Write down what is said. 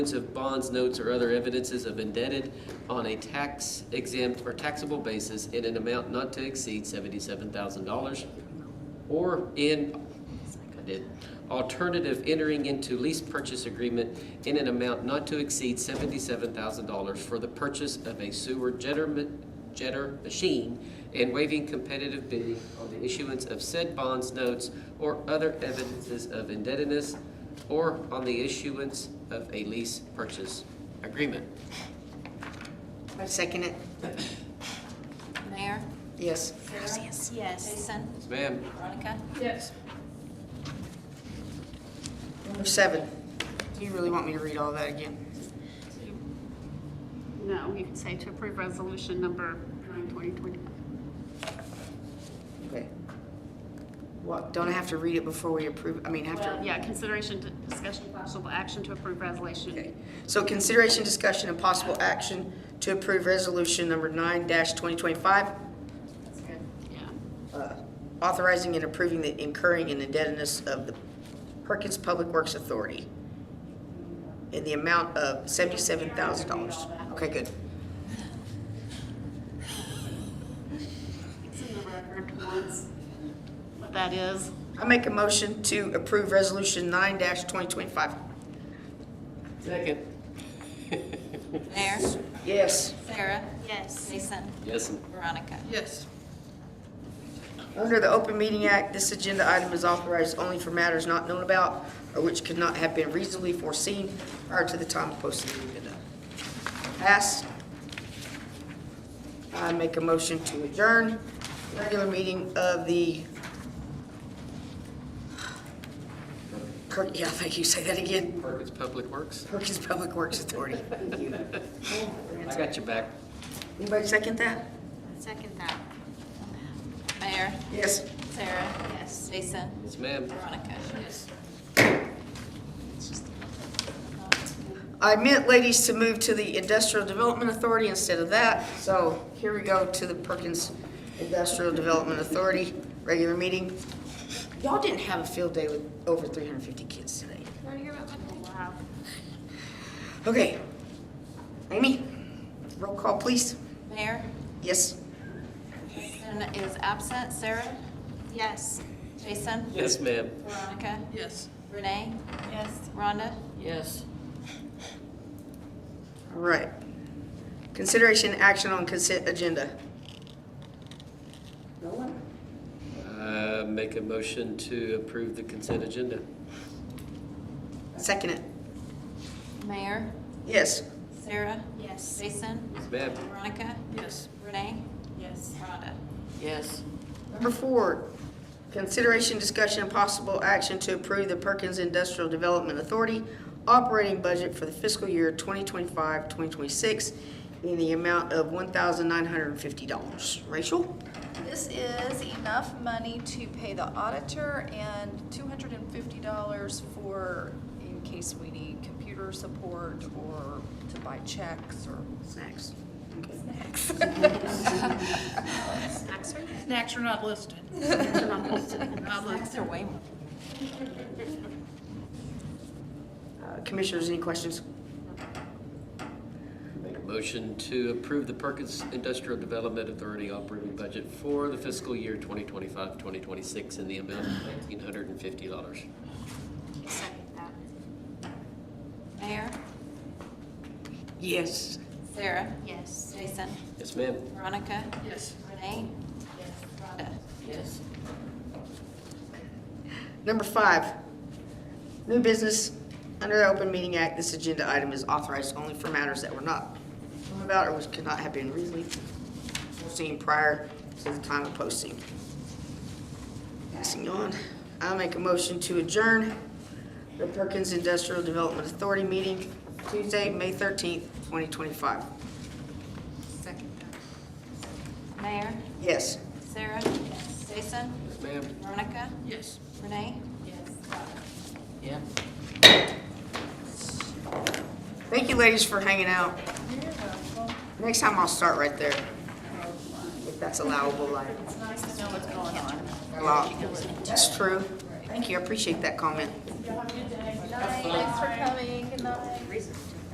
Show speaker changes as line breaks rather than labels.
of bonds, notes, or other evidences of indebted on a tax exempt or taxable basis in an amount not to exceed seventy-seven thousand dollars. Or in, I did, alternative entering into lease purchase agreement in an amount not to exceed seventy-seven thousand dollars for the purchase of a sewer jetter, ma- jetter machine and waiving competitive bidding on the issuance of said bonds, notes, or other evidences of indebtedness or on the issuance of a lease purchase agreement.
I second it.
Mayor?
Yes.
Sarah? Yes. Jason?
Yes, ma'am.
Veronica?
Yes.
Number seven. Do you really want me to read all that again?
No, you can say to approve resolution number nine twenty twenty-five.
Okay. What, don't I have to read it before we approve, I mean, have
Well,
to?
yeah, consideration, to- discussion, possible action to approve
Okay.
resolution.
So consideration, discussion, and possible action to approve resolution number nine dash twenty twenty-five, uh,
Yeah.
authorizing and approving the incurring and indebtedness of the Perkins Public Works Authority in the amount of seventy-seven thousand dollars. Okay, good.
It's in the record once. What that is.
I make a motion to approve resolution nine dash twenty twenty-five.
Second.
Mayor?
Yes.
Sarah? Yes. Jason?
Yes.
Veronica?
Yes. Under the Open Meeting Act, this agenda item is authorized only for matters not known about or which could not have been reasonably foreseen prior to the time of posting the agenda. Pass. I make a motion to adjourn regular meeting of the Per- yeah, thank you, say that again,
Perkins Public Works.
Perkins Public Works Authority.
I got your back.
Anybody second that?
Second that. Mayor?
Yes.
Sarah? Yes. Jason?
Yes, ma'am.
Veronica?
I meant, ladies, to move to the Industrial Development Authority instead of that. So here we go to the Perkins Industrial Development Authority, regular meeting. Y'all didn't have a field day with over 350 kids today.
Wow.
Okay. Amy, roll call, please.
Mayor?
Yes?
Jason is absent. Sarah? Yes. Jason?
Yes, ma'am.
Veronica? Yes. Renee? Yes. Rhonda?
All right. Consideration action on consent agenda. No one?
Uh, Make a motion to approve the consent agenda.
Second it.
Mayor?
Yes.
Sarah? Yes. Jason?
Yes, ma'am.
Veronica? Yes. Renee? Yes. Rhonda?
Number four, consideration, discussion, and possible action to approve the Perkins Industrial Development Authority operating budget for the fiscal year 2025-2026 in the amount of $1,950. Rachel?
This is enough money to pay the auditor and two hundred and fifty dollars for, in case we need computer support or to buy checks or
Snacks.
snacks.
Snacks are not listed. Not listed.
That's their way more.
Uh, Commissioners, any questions?
Make a motion to approve the Perkins Industrial Development Authority operating budget for the fiscal year 2025, 2026 in the amount of $1,950.
Mayor?
Yes.
Sarah? Yes. Jason?
Yes, ma'am.
Veronica?
Yes.
Renee? Yes. Rhonda?
Number five, new business. Under the Open Meeting Act, this agenda item is authorized only for matters that were not known about or which could not have been reasonably foreseen prior to the time of posting. Passing on, I make a motion to adjourn the Perkins Industrial Development Authority meeting Tuesday, May thirteenth, twenty twenty-five.
Mayor?
Yes.
Sarah? Yes. Jason?
Yes, ma'am.
Veronica?
Yes.
Renee? Yes.
Thank you, ladies, for hanging out. Next time I'll start right there, if that's allowable, like. It's nice to know what's going on. Well, that's true. Thank you, I appreciate that comment.
Thanks for coming. Good night.